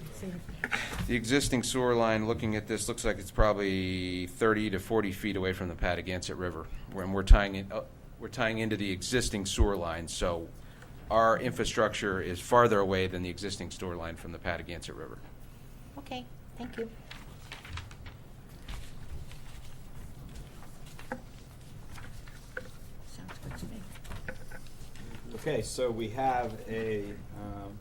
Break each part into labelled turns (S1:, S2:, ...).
S1: existing,
S2: The existing sewer line, looking at this, looks like it's probably 30 to 40 feet away from the Patagonic River, when we're tying it, up- we're tying into the existing sewer line, so our infrastructure is farther away than the existing sewer line from the Patagonic River.
S1: okay, thank you. Sounds good to me.
S3: Okay, so we have a, um,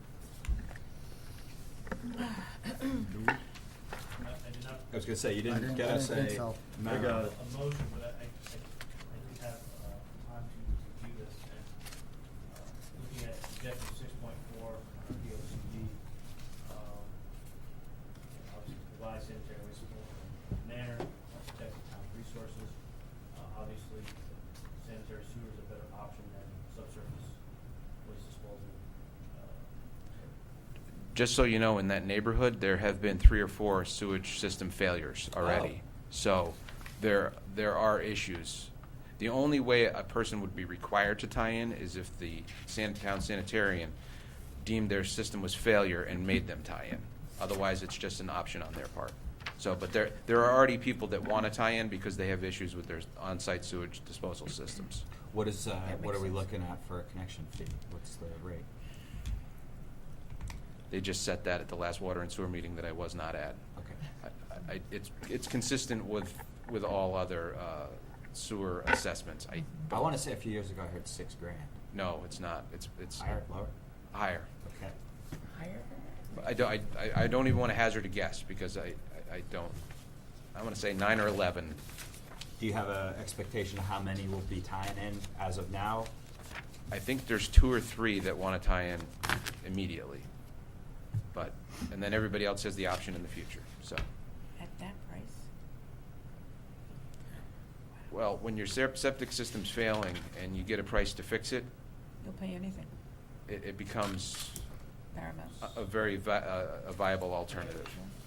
S4: I I did not.
S3: I was gonna say, you
S5: I
S3: didn't
S5: didn't-
S3: get
S5: I
S3: us
S5: didn't
S3: a.
S5: think so.
S4: I
S3: map.
S4: got a motion, but I, I, I I did have, uh, time to review this and, uh, looking at objective six point four, the O C D, um, obviously provide sanitary waste disposal in a manner, that protects the town's resources. Uh, obviously, sanitary sewer is a better option than subsurface waste disposal. Uh,
S2: Just so you know, in that neighborhood, there have been three or four sewage system failures already. So there, there are issues. The only way a person would be required to tie in is if the san- town sanitarian deemed their system was failure and made them tie in. Otherwise, it's just an option on their part. So, but there, there are already people that want to tie in because they have issues with their on-site sewage disposal systems.
S3: What is, uh,
S1: That
S3: what
S1: makes
S3: are we
S1: sense.
S3: looking at for a connection fee? What's the rate?
S2: They just set that at the last water and sewer meeting that I was not at.
S3: Okay.
S2: I- I- It's, it's consistent with, with all other uh, sewer assessments. I,
S3: I wanna say a few years ago I heard six grand.
S2: no, it's not. It's, it's
S3: I heard lower.
S2: higher.
S3: Okay.
S2: But I don't, I, I- I don't even want to hazard a guess because I, I- I don't, I want to say nine or 11.
S3: Do you have a expectation of how many will be tying in as of now?
S2: I think there's two or three that want to tie in immediately. But, and then everybody else has the option in the future, so.
S1: At that price?
S2: Well, when your sep- septic system's failing and you get a price to fix it,
S1: You'll pay anything,
S2: it, it becomes
S1: paramount.
S2: a- a very vi- a a viable alternative.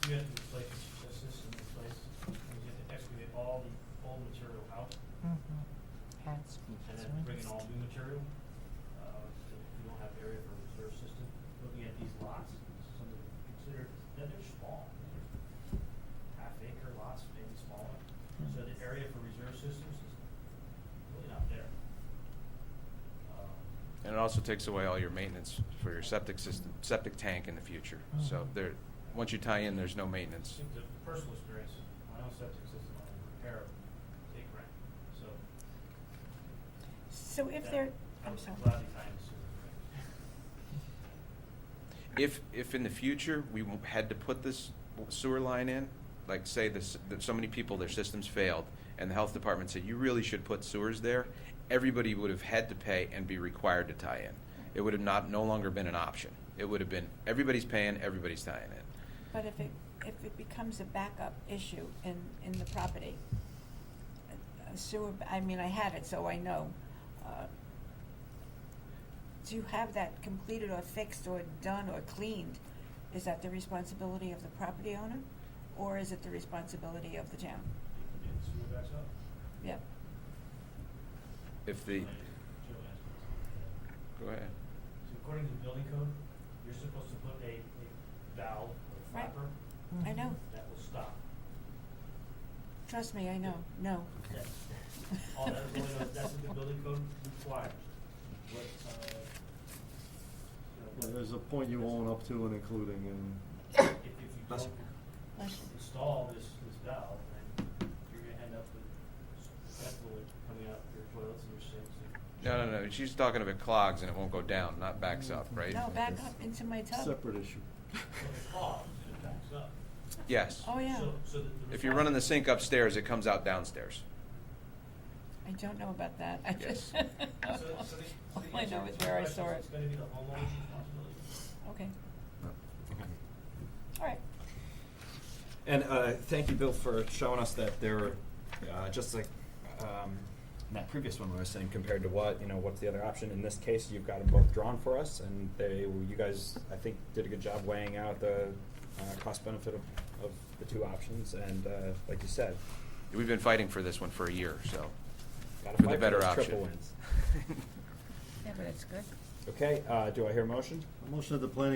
S4: You have to replace the system, replace, you have to excavate all the old material out and then bring in all new material. Uh, so if you don't have area for a reserve system, looking at these lots, something to consider, then they're small. They're Half acre lots, maybe smaller. So the area for reserve systems is really not there. Um,
S2: And it also takes away all your maintenance for your septic system, septic tank in the future. So there, once you tie in, there's no maintenance.
S4: It's a personal experience, my own septic system, I repair, take rent, so.
S1: So if
S4: that-
S1: they're,
S4: I
S1: I'm
S4: was
S1: sorry.
S4: glad they tied it to the rent.
S2: If, if in the future, we w- had to put this sewer line in, like say this, that so many people, their systems failed, and the health department said, you really should put sewers there, everybody would have had to pay and be required to tie in. It would have not, no longer been an option. It would have been, everybody's paying, everybody's tying in.
S1: But if it, if it becomes a backup issue in, in the property, a- a sewer, I mean, I had it, so I know. uh, To have that completed or fixed or done or cleaned, is that the responsibility of the property owner? Or is it the responsibility of the town?
S4: And so we're back up.
S1: Yep.
S2: If the,
S4: Joe asked me.
S2: go ahead.
S4: So according to the building code, you're supposed to put a, a valve or
S1: Right.
S4: flapper
S1: I know,
S4: that will stop.
S1: trust me, I know, no.
S4: That's, all that really, does- that's what the building code requires. What, uh, you
S5: Well,
S4: know,
S5: There's a point you own up to and including, and
S4: If, if you
S3: Bless
S4: don't
S1: Bless you.
S4: install this, this valve, then you're gonna end up with pet fluid coming out your toilets and your sinks and.
S2: No, no, no, she's talking about clogs and it won't go down, not backs up, right?
S1: No, Oh, back up into my tub.
S5: separate issue.
S4: So it clogs and it backs up.
S2: Yes.
S1: Oh, yeah.
S4: So, so the. the
S2: If you're
S4: response-
S2: running the sink upstairs, it comes out downstairs.
S1: I don't know about that. I just.
S2: Yes.
S4: So, so the, so
S1: All
S4: the
S1: I
S4: answer
S1: know
S4: to
S1: is
S4: your
S1: where I
S4: question
S1: saw
S4: is
S1: it.
S4: It's gonna be the homeowner's responsibility.
S1: Okay,
S3: Okay.
S1: all right.
S3: And uh, thank you, Bill, for showing us that there, are, uh, just like um, in that previous one we were saying, compared to what you know, what's the other option? In this case, you've got them both drawn for us, and they, you guys, I think, did a good job weighing out the uh, cost benefit of, of the two options. And uh, like you said,
S2: We've been fighting for this one for a year, so.
S3: got
S2: For
S3: to
S2: the
S3: fight
S2: better
S3: for those
S2: option.
S3: triple wins.
S1: Yeah, but it's good.
S3: Okay, uh, do I hear a motion?
S5: A motion of the planning